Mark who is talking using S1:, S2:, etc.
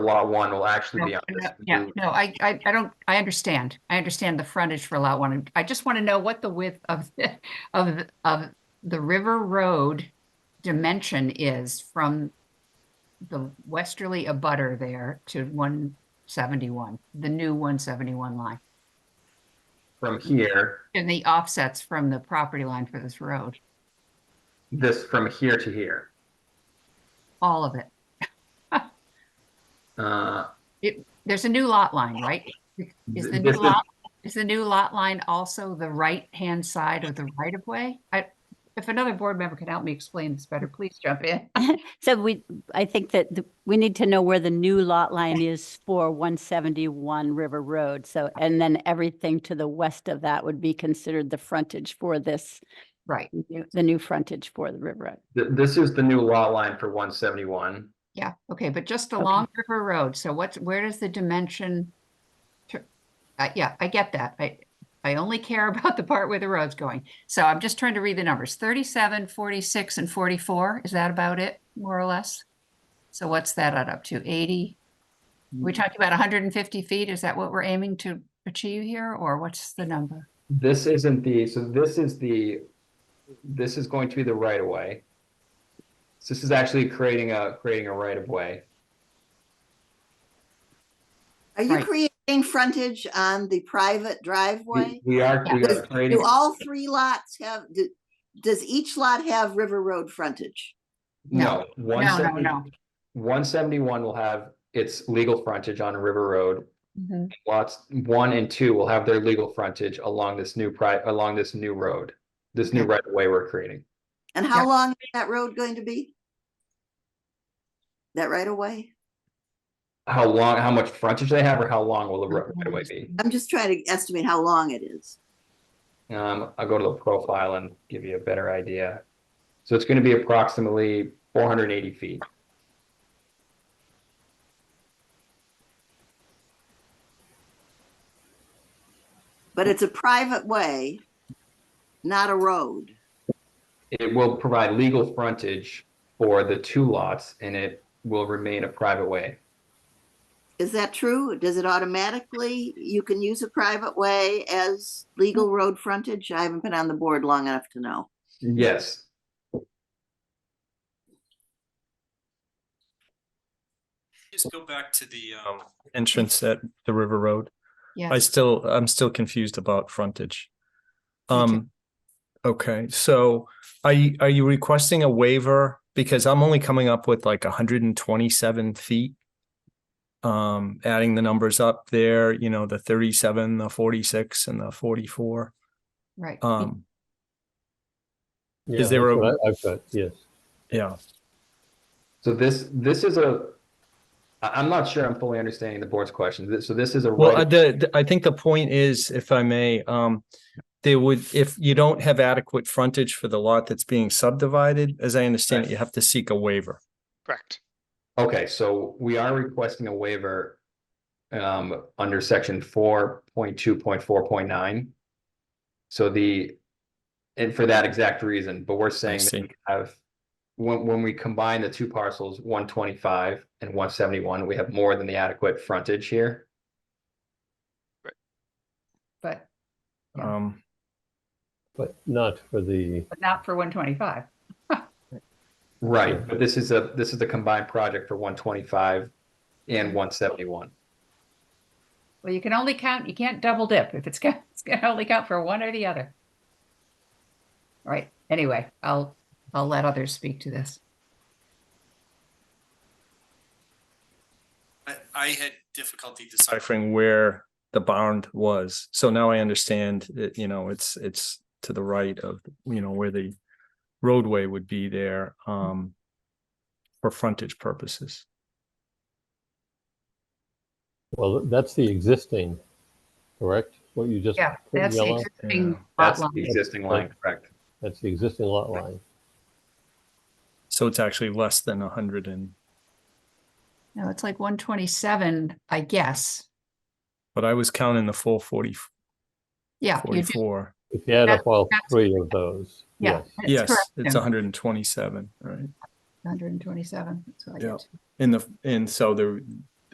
S1: lot one will actually be
S2: No,
S1: on this.
S2: Yeah,
S1: new-
S2: no, I, I, I don't, I understand. I understand the frontage for lot one. I just want to know what the width of, the- of, the- of the River Road dimension is from the westerly abutter there to one seventy-one, the new one seventy-one line.
S1: From here,
S2: And the offsets from the property line for this road,
S1: this, from here to here.
S2: all of it.
S1: Uh,
S2: It, there's a new lot line, right? Is the
S1: th-
S2: new
S1: this
S2: lot, is the new lot line also the right-hand side of the right-of-way? I, if another board member can help me explain this better, please jump in.
S3: So we, I think that the- we need to know where the new lot line is for 171 River Road. So, and then everything to the west of that would be considered the frontage for this,
S2: Right,
S3: new- the new frontage for the River Road.
S1: th- This is the new lot line for one seventy-one.
S2: yeah, okay, but just
S3: Okay.
S2: along River Road, so what's, where does the dimension? to- Uh, yeah, I get that. I, I only care about the part where the road's going. So I'm just trying to read the numbers. 37, 46, and 44, is that about it, more or less? So what's that add up to? 80?
S1: Mm.
S2: We talked about 150 feet. Is that what we're aiming to achieve here, or what's the number?
S1: This isn't the, so this is the, this is going to be the right of way. So This is actually creating a, creating a right of way.
S4: Are you
S2: Right.
S4: creating frontage on the private driveway?
S1: We are, we
S4: Yeah.
S1: are creating,
S4: Do all three lots have, do- does each lot have River Road frontage?
S1: no.
S2: No, no, no.
S1: One seventy-one will have its legal frontage on River Road.
S2: Mhm.
S1: Lots one and two will have their legal frontage along this new pri, along this new road. This new
S2: Okay.
S1: right of way we're creating.
S4: And
S2: Yeah.
S4: how long is that road going to be? That right away?
S1: How long, how much frontage they have or how long will the ri- right of way be?
S4: I'm just trying to estimate how long it is.
S1: Um, I'll go to the profile and give you a better idea. So it's gonna be approximately four hundred and eighty feet.
S4: But it's a private way, not a road.
S1: It will provide legal frontage for the two lots and it will remain a private way.
S4: Is that true? Does it automatically, you can use a private way as legal
S2: Mm.
S4: road frontage? I haven't been on the board long enough to know.
S1: Yes,
S5: Just go back to the um entrance at the River Road. I
S2: Yes,
S5: still, I'm still confused about frontage.
S2: Me too.
S5: Um, okay, so are you, are you requesting a waiver? Because I'm only coming up with like hundred and twenty-seven feet. Um, adding the numbers up there, you know, the thirty-seven, the forty-six and the forty-four.
S2: right.
S5: Um,
S6: Yeah,
S5: there
S6: that's
S5: a-
S6: what I- I've got, yes.
S5: yeah,
S1: so this, this is a, I, I'm not sure I'm fully understanding the board's question. This- So this is a.
S5: well,
S1: right-
S5: uh, the, the- I think the point is, if I may, um. There would, if you don't have adequate frontage for the lot that's being subdivided, as I understand it, you have to seek a waiver.
S7: Correct.
S1: Okay, so we are requesting a waiver um, under section four point two point four point nine. So the, and for that exact reason, but we're saying that
S5: see.
S1: we have, when, when we combine the two parcels, one twenty-five and one seventy-one, we have more than the adequate frontage here.
S2: But, Yeah.
S5: Um.
S6: But not for the,
S2: but not for 125.
S1: Right, but this is a, this is a combined project for one twenty-five and one seventy-one.
S2: Well, you can only count, you can't double dip. If it's, go- it's going to only count for one or the other. All Right, anyway, I'll, I'll let others speak to this.
S8: I, I had difficulty deciding.
S5: deciphering where the bound was. So now I understand that, you know, it's, it's to the right of, you know, where the roadway would be there, um, for frontage purposes.
S6: well, that's the existing, correct? What you just.
S2: Yeah,
S6: put
S2: that's the
S6: yellow?
S2: existing lot
S1: That's
S2: line.
S1: the existing line, correct?
S6: That's the existing lot line.
S5: So it's actually less than a hundred and,
S2: No, it's like 127, I guess.
S5: but I was counting the full forty,
S2: Yeah, you do.
S5: forty-four.
S6: If you add
S2: That's-
S6: up all
S2: that's-
S6: three of those,
S2: Yeah.
S6: yes.
S2: that's
S5: Yes,
S2: correct.
S5: it's hundred and twenty-seven, right?
S2: 127, that's what I
S5: Yeah.
S2: get.
S5: In the, and so there,